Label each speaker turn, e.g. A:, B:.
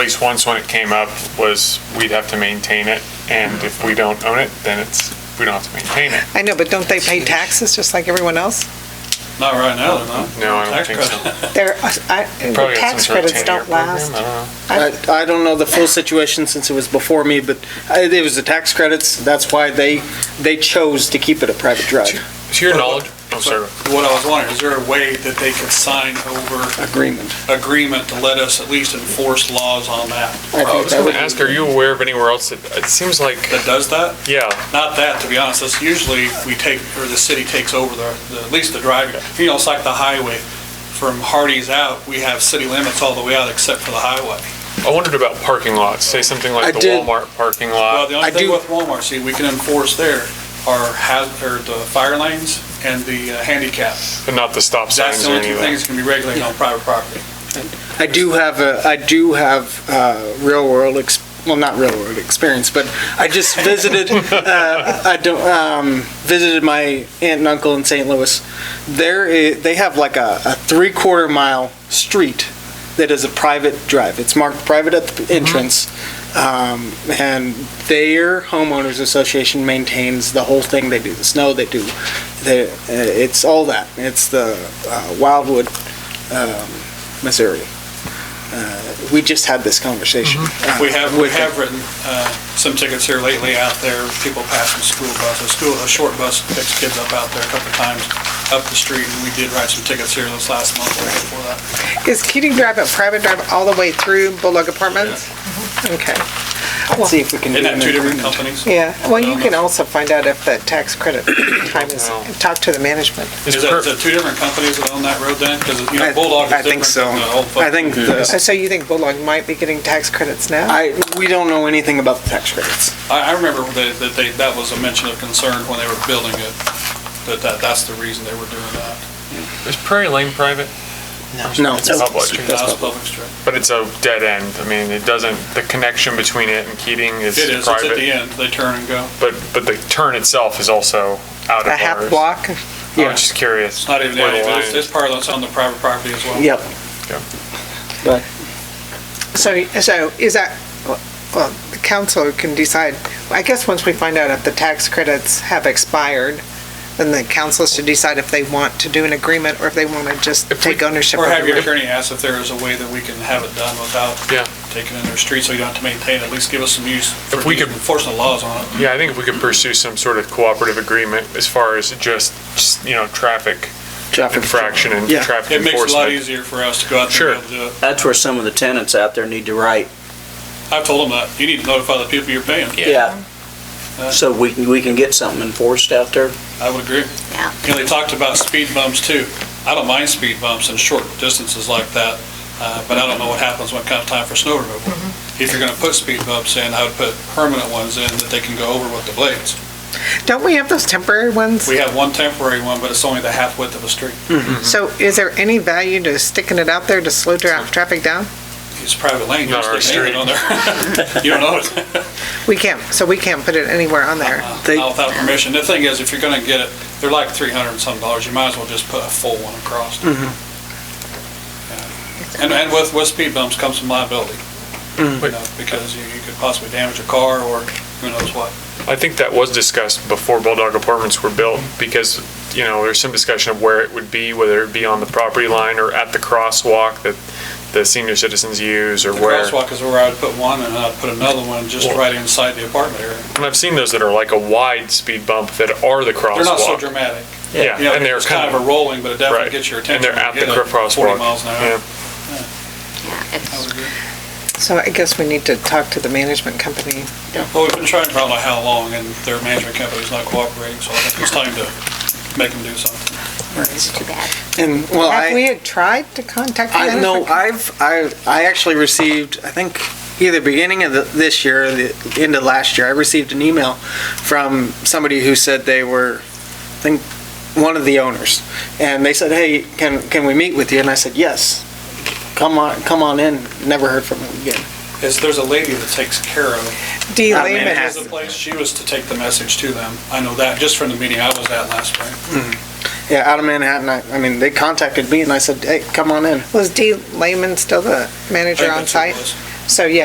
A: place once when it came up was we'd have to maintain it, and if we don't own it, then it's, we don't have to maintain it.
B: I know, but don't they pay taxes just like everyone else?
C: Not right now, they're not.
A: No, I don't
C: Tax
A: think so.
C: credit.
B: They're, uh, I, the
A: Probably got some
B: tax
A: sort of
B: credits
A: 10-year
B: don't
A: program,
B: last.
A: I don't know.
B: I-
D: I, I don't know the full situation since it was before me, but uh, it was the tax credits. That's why they, they chose to keep it a private drive
A: To your knowledge, I'm sorry.
C: What I was wondering, is there a way that they could sign over
D: agreement.
C: agreement to let us at least enforce laws on that,
D: I
A: I
D: think
A: was
D: that
A: going
D: would
A: to ask,
D: be-
A: are you aware of anywhere else that, it seems like,
C: that does that?
A: yeah,
C: Not that, to be honest, that's usually we take, or the city takes over the, the- at least the driving. You know, it's like the highway, from Hardee's out, we have city limits all the way out except for the highway.
A: I wondered about parking lots, say something
D: I
A: like the
D: did-
A: Walmart parking
C: Well,
A: lot.
C: the
D: I
C: only thing
D: do-
C: with Walmart, see, we can enforce there are has, or the fire lanes and the uh, handicap.
A: But not the stop
C: That's
A: signs
C: the
A: or any
C: only two
A: of that.
C: things that can be regulated on private property.
D: I do have a, I do have, uh, real world, ex- well, not real world experience, but I just visited, uh, I don't, um, visited my aunt and uncle in St. Louis. There i they have like a, a three quarter mile street that is a private drive. It's marked private at the
C: Mm-hmm.
D: entrance. Um, and their homeowners association maintains the whole thing. They do the snow, they do, the uh, it's all that. It's the, uh, Wildwood, um, Missouri. Uh, We just had this conversation. uh,
C: Mm-hmm. We have, we
D: with them.
C: have written uh, some tickets here lately out there, people passing school buses, school, a short bus picks kids up out there a couple of times up the street, and we did write some tickets here this last month, or before that.
B: Is Keating Drive a private drive all the way through Bulldog Apartments? Okay,
D: Let's see if we can.
C: Isn't
D: do
C: that
D: an
C: two different
D: agreement.
C: companies?
B: yeah. Well,
A: Um,
B: you can also find out if the tax credit time is,
A: Wow.
B: talk to the management.
A: Is
C: Is that,
A: per-
C: is that two different companies that own that road then? Because, you
D: I-
C: know, Bulldog
D: I
C: is
D: think
C: different
D: so.
C: than the old folks.
D: I think, the-
B: Uh, So you think Bulldog might be getting tax credits now?
D: I, we don't know anything about the tax credits.
C: I, I remember that, that they, that was a mention of concern when they were building it, that, that, that's the reason they were doing that.
A: Is Prairie Lane private?
D: No.
A: It's public,
C: That was
D: public.
C: public street.
A: but it's a dead end. I mean, it doesn't, the connection between it and Keating is
C: It is, it's at the
A: private.
C: end, they turn and go.
A: But, but the turn itself is also out of
B: A
A: ours.
B: half block?
A: I was just curious.
C: It's not even,
A: where the line
C: it's,
A: is.
C: it's part that's on the private property as well.
D: Yep.
A: Yeah.
D: But
B: So, so is that, well, the council can decide, I guess once we find out if the tax credits have expired, then the council should decide if they want to do an agreement or if they want to just
A: If we-
B: take ownership of
C: Or have your
B: it.
C: attorney ask if there is a way that we can have it done without
A: Yeah.
C: taking in their street, so you don't have to maintain, it. at least give us some use for
A: If we could-
C: enforcing the laws on it.
A: Yeah, I think if we could pursue some sort of cooperative agreement as far as just, just, you know, traffic
D: traffic.
A: infraction and
D: Yeah.
A: traffic
C: It makes it a lot
A: enforcement.
C: easier for us to go out there and
A: Sure.
C: be able to do it.
E: That's where some of the tenants out there need to write.
C: I've told them that, you need to notify the people you're paying.
E: Yeah. So we can, we can get something enforced out there.
C: I would agree.
F: Yeah.
C: You know, they talked about speed bumps too. I don't mind speed bumps in short distances like that, uh, but I don't know what happens when it comes time for snow removal. If you're gonna put speed bumps in, I would put permanent ones in that they can go over with the blades.
B: Don't we have those temporary ones?
C: We have one temporary one, but it's only the half width of a street.
B: So is there any value to sticking it out there to slow dra- traffic down?
C: It's private lane.
A: Not our
C: There's no name on there. You don't know it.
B: We can't, so we can't put it anywhere on there.
D: They-
C: Not without permission. The thing is, if you're gonna get it, they're like three hundred and some dollars. You might as well just put a full one across. And, and with, with speed bumps comes some liability. You know, because you, you could possibly damage a car or who knows what.
A: I think that was discussed before Bulldog Apartments were built because, you know, there's some discussion of where it would be, whether it be on the property line or at the crosswalk that the senior citizens use or
C: The
A: where.
C: crosswalk is where I'd put one and I'd put another one just
A: Well-
C: right inside the apartment area.
A: And I've seen those that are like a wide speed bump that are the crosswalk.
C: They're not so dramatic.
A: Yeah,
C: You know,
A: and they're
C: it's kind of a rolling, but it definitely gets your attention.
A: And they're at
C: You
A: the
C: get a
A: crosswalk.
C: Forty miles an
A: Yeah.
C: hour.
F: Yeah,
C: I
F: it's-
C: would agree.
B: So I guess we need to talk to the management company.
C: Well, we've been trying for I don't know how long, and their management company's not cooperating, so I think it's time to make them do something.
F: it's too bad.
D: And, well,
B: Have we
D: I,
B: had tried to contact the
D: I
B: management?
D: know, I've, I, I actually received, I think, either beginning of the- this year, or the end of last year, I received an email from somebody who said they were, I think, one of the owners. And they said, hey, can, can we meet with you? And I said, yes. Come on, come on in. Never heard from them again.
C: Is there's a lady that takes care of
B: Dee
D: Uh,
B: Lehman
C: it.
D: Manhattan.
B: has-
C: Is the place, she was to take the message to them. I know that, just from the meeting I was at last spring.
D: Yeah, out of Manhattan. I, I mean, they contacted me and I said, hey, come on in.
B: was Dee Lehman still the manager on site?
C: I
B: So, yeah,